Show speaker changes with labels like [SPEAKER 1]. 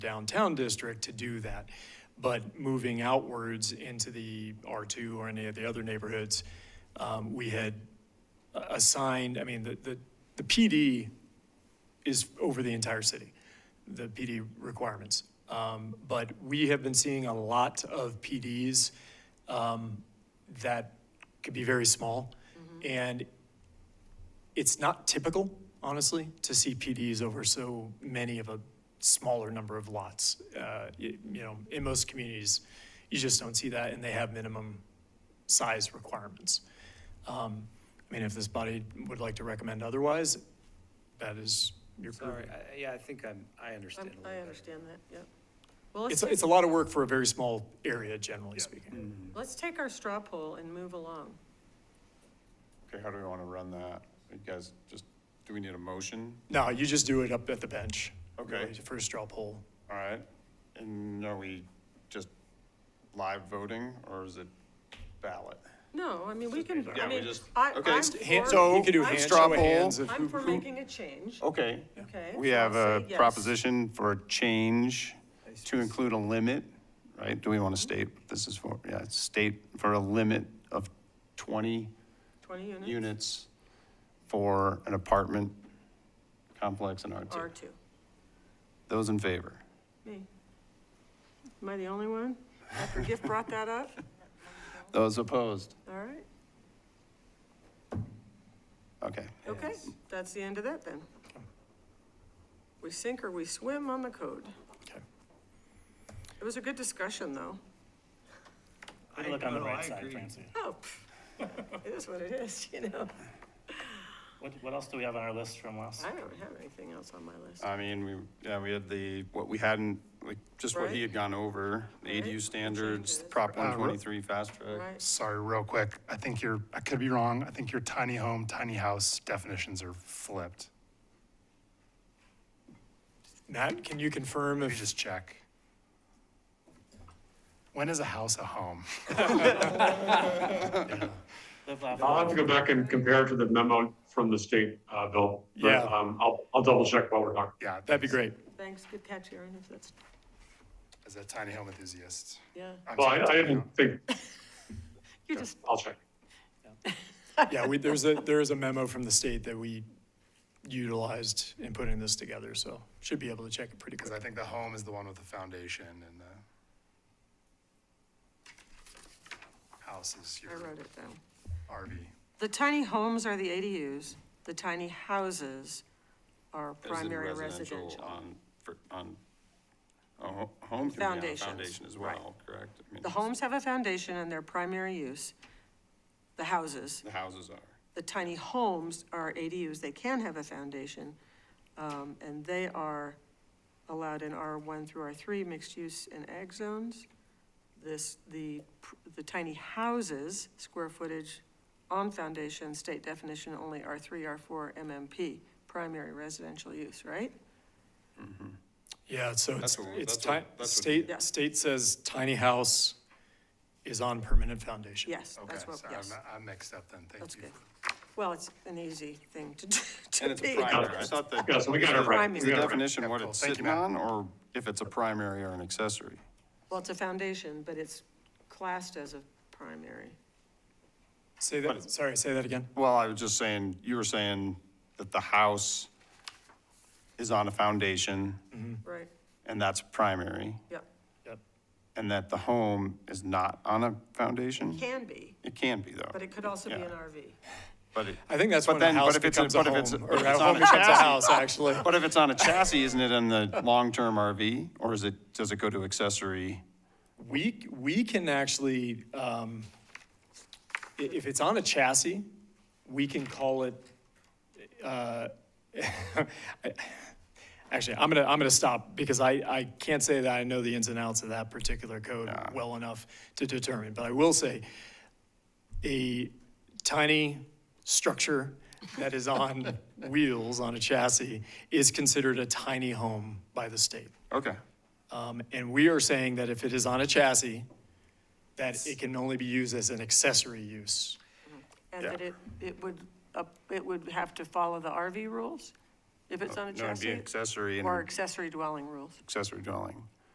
[SPEAKER 1] downtown district to do that. But moving outwards into the R2 or any of the other neighborhoods, um, we had a- assigned, I mean, the, the, the PD is over the entire city, the PD requirements. Um, But we have been seeing a lot of PDs um, that could be very small. And it's not typical, honestly, to see PDs over so many of a smaller number of lots. Uh, y- You know, in most communities, you just don't see that, and they have minimum size requirements. Um, I mean, if this body would like to recommend otherwise, that is your.
[SPEAKER 2] Sorry, I- yeah, I think I'm, I understand
[SPEAKER 3] I'm-
[SPEAKER 2] a little
[SPEAKER 3] I
[SPEAKER 2] better.
[SPEAKER 3] understand that, yep. Well, let's
[SPEAKER 1] It's,
[SPEAKER 3] take,
[SPEAKER 1] it's a lot of work for a very small area, generally speaking.
[SPEAKER 4] Mm-hmm.
[SPEAKER 3] let's take our straw poll and move along.
[SPEAKER 4] Okay, how do we want to run that? You guys, just, do we need a motion?
[SPEAKER 1] No, you just do it up at the bench.
[SPEAKER 4] Okay.
[SPEAKER 1] really, For a straw poll.
[SPEAKER 4] All right, and are we just live voting, or is it ballot?
[SPEAKER 3] No, I mean, we can,
[SPEAKER 4] Yeah,
[SPEAKER 3] I
[SPEAKER 4] we
[SPEAKER 3] mean,
[SPEAKER 4] just-
[SPEAKER 3] I,
[SPEAKER 4] okay,
[SPEAKER 3] I'm
[SPEAKER 4] just
[SPEAKER 1] Hand-
[SPEAKER 3] for,
[SPEAKER 1] So you could do hand,
[SPEAKER 4] Straw
[SPEAKER 1] show of
[SPEAKER 4] poll.
[SPEAKER 1] hands of who-
[SPEAKER 3] I'm for
[SPEAKER 1] who-
[SPEAKER 3] making a change,
[SPEAKER 4] Okay,
[SPEAKER 3] okay?
[SPEAKER 4] Oh, we
[SPEAKER 3] so I'll
[SPEAKER 4] have a
[SPEAKER 3] say yes.
[SPEAKER 4] proposition for a change to include a limit, right? Do we want to state, what this is for, yeah, state for a limit of 20
[SPEAKER 3] Twenty units,
[SPEAKER 4] units for an apartment complex in
[SPEAKER 3] R
[SPEAKER 4] R2.
[SPEAKER 3] two,
[SPEAKER 4] Those in favor?
[SPEAKER 3] me. Am I the only one? After Giff brought that up,
[SPEAKER 4] Those opposed?
[SPEAKER 3] all right,
[SPEAKER 4] Okay,
[SPEAKER 3] okay, that's the end of that then. We sink or we swim on the code.
[SPEAKER 1] Okay.
[SPEAKER 3] It was a good discussion, though.
[SPEAKER 2] I-
[SPEAKER 5] Look on the
[SPEAKER 2] no, I
[SPEAKER 5] right side,
[SPEAKER 2] agree.
[SPEAKER 5] Francie.
[SPEAKER 3] Oh, pff, it is what it is, you know?
[SPEAKER 5] What, what else do we have on our list from last?
[SPEAKER 3] I don't have anything else on my list.
[SPEAKER 4] I mean, we, yeah, we had the, what we hadn't, like, just what he had gone over, the
[SPEAKER 3] Right.
[SPEAKER 4] ADU standards,
[SPEAKER 3] Changes.
[SPEAKER 4] Prop
[SPEAKER 6] Uh, ro-
[SPEAKER 4] 123 fast track.
[SPEAKER 3] Right,
[SPEAKER 6] Sorry, real quick, I think you're, I could be wrong, I think your tiny home, tiny house definitions are flipped.
[SPEAKER 1] Matt, can you confirm
[SPEAKER 6] Let me
[SPEAKER 1] if
[SPEAKER 6] just check. When is a house a home?
[SPEAKER 5] Live, laugh,
[SPEAKER 7] I'll have
[SPEAKER 5] love.
[SPEAKER 7] to go back and compare it to the memo from the state, uh, Bill. But,
[SPEAKER 1] Yeah.
[SPEAKER 7] um, I'll, I'll double check while we're talking.
[SPEAKER 6] Yeah.
[SPEAKER 1] That'd be great.
[SPEAKER 3] thanks, good catch, Aaron, if that's,
[SPEAKER 6] As a tiny home enthusiast.
[SPEAKER 3] yeah,
[SPEAKER 6] I'm
[SPEAKER 7] Well, I,
[SPEAKER 6] sorry,
[SPEAKER 7] I
[SPEAKER 6] tiny
[SPEAKER 7] didn't
[SPEAKER 6] home.
[SPEAKER 7] think,
[SPEAKER 3] you just,
[SPEAKER 7] I'll check.
[SPEAKER 1] Yeah, we, there's a, there is a memo from the state that we utilized in putting this together, so should be able to check it pretty
[SPEAKER 6] Because
[SPEAKER 1] quick.
[SPEAKER 6] I think the home is the one with the foundation and the house is your
[SPEAKER 3] I wrote it down.
[SPEAKER 6] RV.
[SPEAKER 3] The tiny homes are the ADUs, the tiny houses are
[SPEAKER 4] As in
[SPEAKER 3] primary residential.
[SPEAKER 4] On, for- on, a ho- home can be on a
[SPEAKER 3] Foundations,
[SPEAKER 4] foundation as
[SPEAKER 3] right.
[SPEAKER 4] well, correct? I mean,
[SPEAKER 3] The homes have a foundation and their primary use, the houses.
[SPEAKER 4] The houses are.
[SPEAKER 3] The tiny homes are ADUs, they can have a foundation, um, and they are allowed in R1 through R3, mixed use and ag zones. This, the, pr- the tiny houses, square footage on foundation, state definition only R3, R4, MMP, primary residential use, right?
[SPEAKER 1] Yeah, so it's,
[SPEAKER 4] That's what-
[SPEAKER 1] it's
[SPEAKER 4] that's what-
[SPEAKER 1] ti-
[SPEAKER 4] that's what-
[SPEAKER 3] Yeah.
[SPEAKER 1] state, state says tiny house is on permanent foundation.
[SPEAKER 3] Yes,
[SPEAKER 6] Okay,
[SPEAKER 3] that's what,
[SPEAKER 6] so
[SPEAKER 3] yes,
[SPEAKER 6] I'm- I'm mixed up then, thank
[SPEAKER 3] that's
[SPEAKER 6] you.
[SPEAKER 3] good. Well, it's an easy thing to do, to
[SPEAKER 4] And it's a
[SPEAKER 3] be.
[SPEAKER 4] primary, I thought that.
[SPEAKER 7] Yeah, so we got it right. We
[SPEAKER 4] Is the
[SPEAKER 7] got it right.
[SPEAKER 4] definition what
[SPEAKER 6] Yeah, cool.
[SPEAKER 4] it's
[SPEAKER 6] Thank you,
[SPEAKER 4] sitting
[SPEAKER 6] Matt.
[SPEAKER 4] on, or if it's a primary or an accessory?
[SPEAKER 3] Well, it's a foundation, but it's classed as a primary.
[SPEAKER 1] Say that, sorry, say that again.
[SPEAKER 4] Well, I was just saying, you were saying that the house is on a foundation,
[SPEAKER 3] Right,
[SPEAKER 4] and that's primary,
[SPEAKER 3] yep,
[SPEAKER 1] Yep.
[SPEAKER 4] and that the home is not on a foundation?
[SPEAKER 3] can be,
[SPEAKER 4] It can be, though.
[SPEAKER 3] but it could also be an
[SPEAKER 4] Yeah.
[SPEAKER 3] RV.
[SPEAKER 4] But it-
[SPEAKER 1] I think that's
[SPEAKER 4] But
[SPEAKER 1] when a
[SPEAKER 4] then- but
[SPEAKER 1] house
[SPEAKER 4] if it's a-
[SPEAKER 1] becomes a
[SPEAKER 4] but if it's-
[SPEAKER 1] home,
[SPEAKER 4] if
[SPEAKER 1] or a
[SPEAKER 4] it's on
[SPEAKER 1] home
[SPEAKER 4] a
[SPEAKER 1] becomes a
[SPEAKER 4] chassis.
[SPEAKER 1] house, actually.
[SPEAKER 4] But if it's on a chassis, isn't it in the long-term RV, or is it, does it go to accessory?
[SPEAKER 1] We, we can actually, um, i- if it's on a chassis, we can call it, uh, I- actually, I'm gonna, I'm gonna stop because I, I can't say that I know the ins and outs of that particular code well enough to determine, but I will say a tiny structure that is on wheels on a chassis is considered a tiny home by the state.
[SPEAKER 4] Okay,
[SPEAKER 1] Um, And we are saying that if it is on a chassis, that it can only be used as an accessory use.
[SPEAKER 3] And that it, it would, up- it would have to follow the RV rules If it's on a
[SPEAKER 4] Uh, No, it'd be
[SPEAKER 3] chassis
[SPEAKER 4] accessory in
[SPEAKER 3] or
[SPEAKER 4] an
[SPEAKER 3] accessory dwelling rules.
[SPEAKER 4] accessory dwelling.